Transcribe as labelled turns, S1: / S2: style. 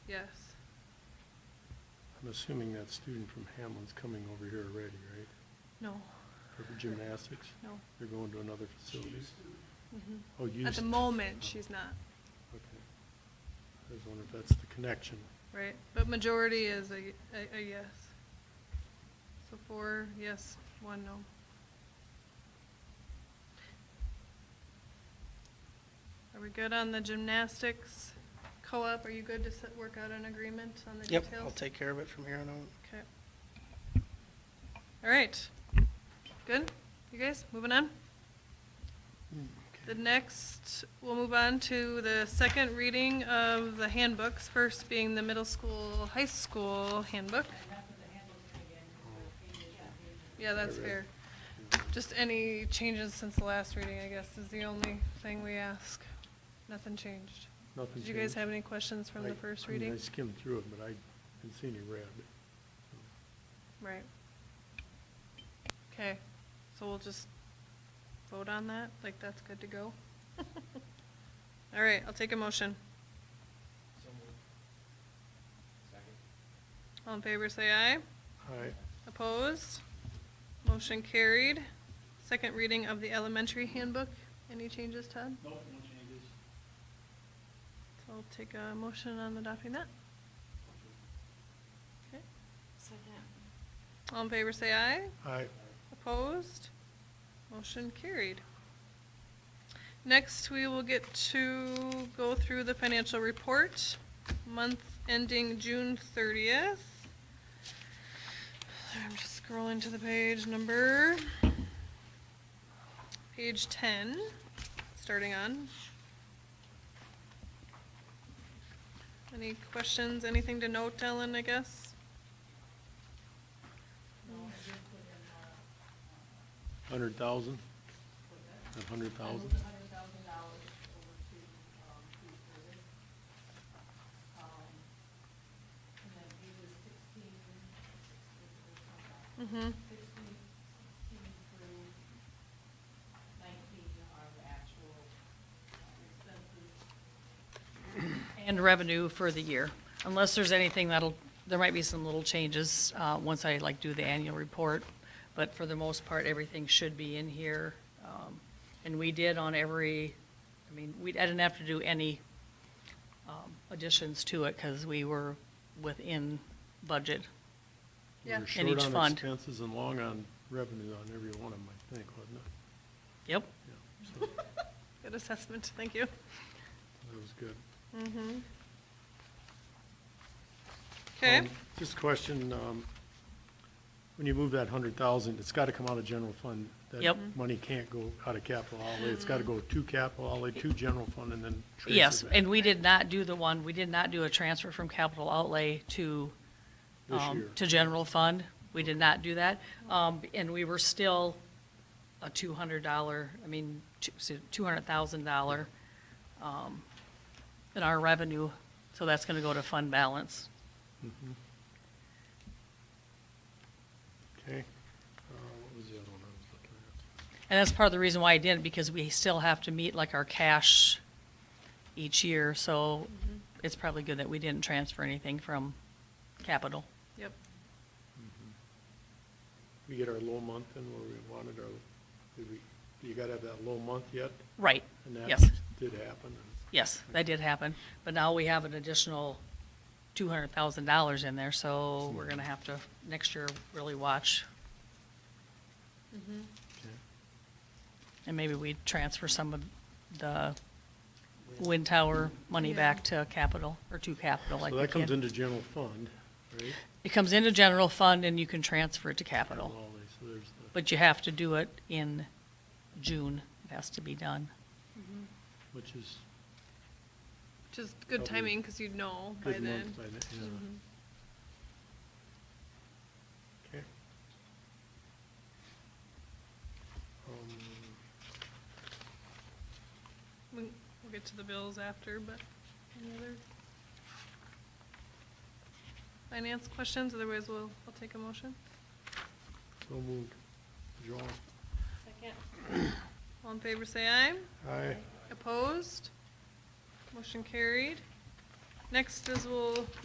S1: Yes.
S2: I'm assuming that student from Hamlin's coming over here already, right?
S1: No,
S2: For gymnastics?
S1: no.
S2: They're going to another facility?
S1: Mhm.
S2: Oh, used.
S1: At the
S2: to.
S1: moment, she's not,
S2: Okay. I was wondering if that's the connection.
S1: right? But majority is a, a, a yes. So four yes, one no. Are we good on the gymnastics co-op? Are you good to set, work out an agreement on the
S3: Yep,
S1: details?
S3: I'll take care of it from here on out.
S1: Okay. All right. Good? You guys, moving on?
S4: Hmm.
S1: The next, we'll move on to the second reading of the handbooks, first being the middle school, high school handbook.
S2: Oh,
S1: Yeah, that's fair. Just any changes since the last reading, I guess, is the only thing we ask. Nothing changed.
S2: Nothing
S1: Did you guys
S2: changed?
S1: have any questions from the
S2: I-
S1: first
S2: I mean,
S1: reading?
S2: I skimmed through it, but I didn't see any red.
S1: Right. Okay, so we'll just vote on that, like that's good to go? All right, I'll take a motion. All in favor, say aye.
S2: Aye.
S1: Opposed? Motion carried. Second reading of the elementary handbook. Any changes, Todd?
S5: Nope, no changes.
S1: So I'll take a motion on adopting that. Okay.
S4: Second.
S1: All in favor, say aye.
S2: Aye.
S1: Opposed? Motion carried. Next, we will get to go through the financial report, month ending June thirtieth. I'm just scrolling to the page number. Page ten, starting on. Any questions, anything to note, Ellen, I guess?
S2: Hundred thousand? A hundred thousand?
S6: I moved a hundred thousand dollars over to, um, food service. Um, and then pages sixteen,
S1: Mm-hmm.
S6: sixteen, sixteen through nineteen are the actual uh, expenses.
S4: And revenue for the year, unless there's anything that'll, there might be some little changes, uh, once I like do the annual report. But for the most part, everything should be in here. Um, and we did on every, I mean, we, I didn't have to do any, um, additions to it, cause we were within budget.
S1: Yeah.
S2: We were
S1: And
S2: short
S4: each
S2: on
S4: fund.
S2: Expenses and long on revenue on every one of them, I think, wasn't it?
S4: Yep,
S2: Yeah, so
S1: Good assessment, thank you.
S2: that was good.
S1: Mm-hmm. Okay,
S2: Um, Just a question, um, when you move that hundred thousand, it's gotta come out of general fund.
S4: Yep.
S2: That money can't go out of capital outlay, it's gotta go to capital outlay, to general fund, and then transfer
S4: yes,
S2: back
S4: and we did not do the one, we did not do a transfer from capital outlay to
S2: This
S4: um,
S2: year,
S4: To general fund, we did not do that, um, and we were still a two hundred dollar, I mean, two hundred thousand dollar, um, in our revenue, so that's gonna go to fund balance.
S2: okay? Uh, what was the other one I was looking at?
S4: And that's part of the reason why I didn't, because we still have to meet like our cash each year, so it's probably good that we didn't transfer anything from capital.
S1: yep,
S2: We get our low month in where we wanted our, did we, you gotta have that low month yet?
S4: Right,
S2: And that
S4: yes.
S2: Did happen, and
S4: Yes, that did happen, but now we have an additional two hundred thousand dollars in there, so we're gonna have to, next year, really watch. And maybe we transfer some of the wind tower money
S1: Yeah.
S4: back to capital, or to capital, like
S2: So
S4: we
S2: that comes
S4: can.
S2: into general fund, right?
S4: It comes into general fund and you can transfer it to
S2: Capital
S4: capital,
S2: outlay, so there's the,
S4: but you have to do it in June, it has to be done.
S2: which is
S1: which is good
S2: Probably
S1: timing, cause you'd know by
S2: good
S1: then.
S2: month by then, yeah.
S1: Mhm.
S2: Okay. Um,
S1: We- We'll get to the bills after, but any other finance questions, otherwise we'll, I'll take a motion.
S2: so moved. John?
S6: Second.
S1: All in favor, say aye.
S2: Aye.
S1: Opposed? Motion carried. Next is we'll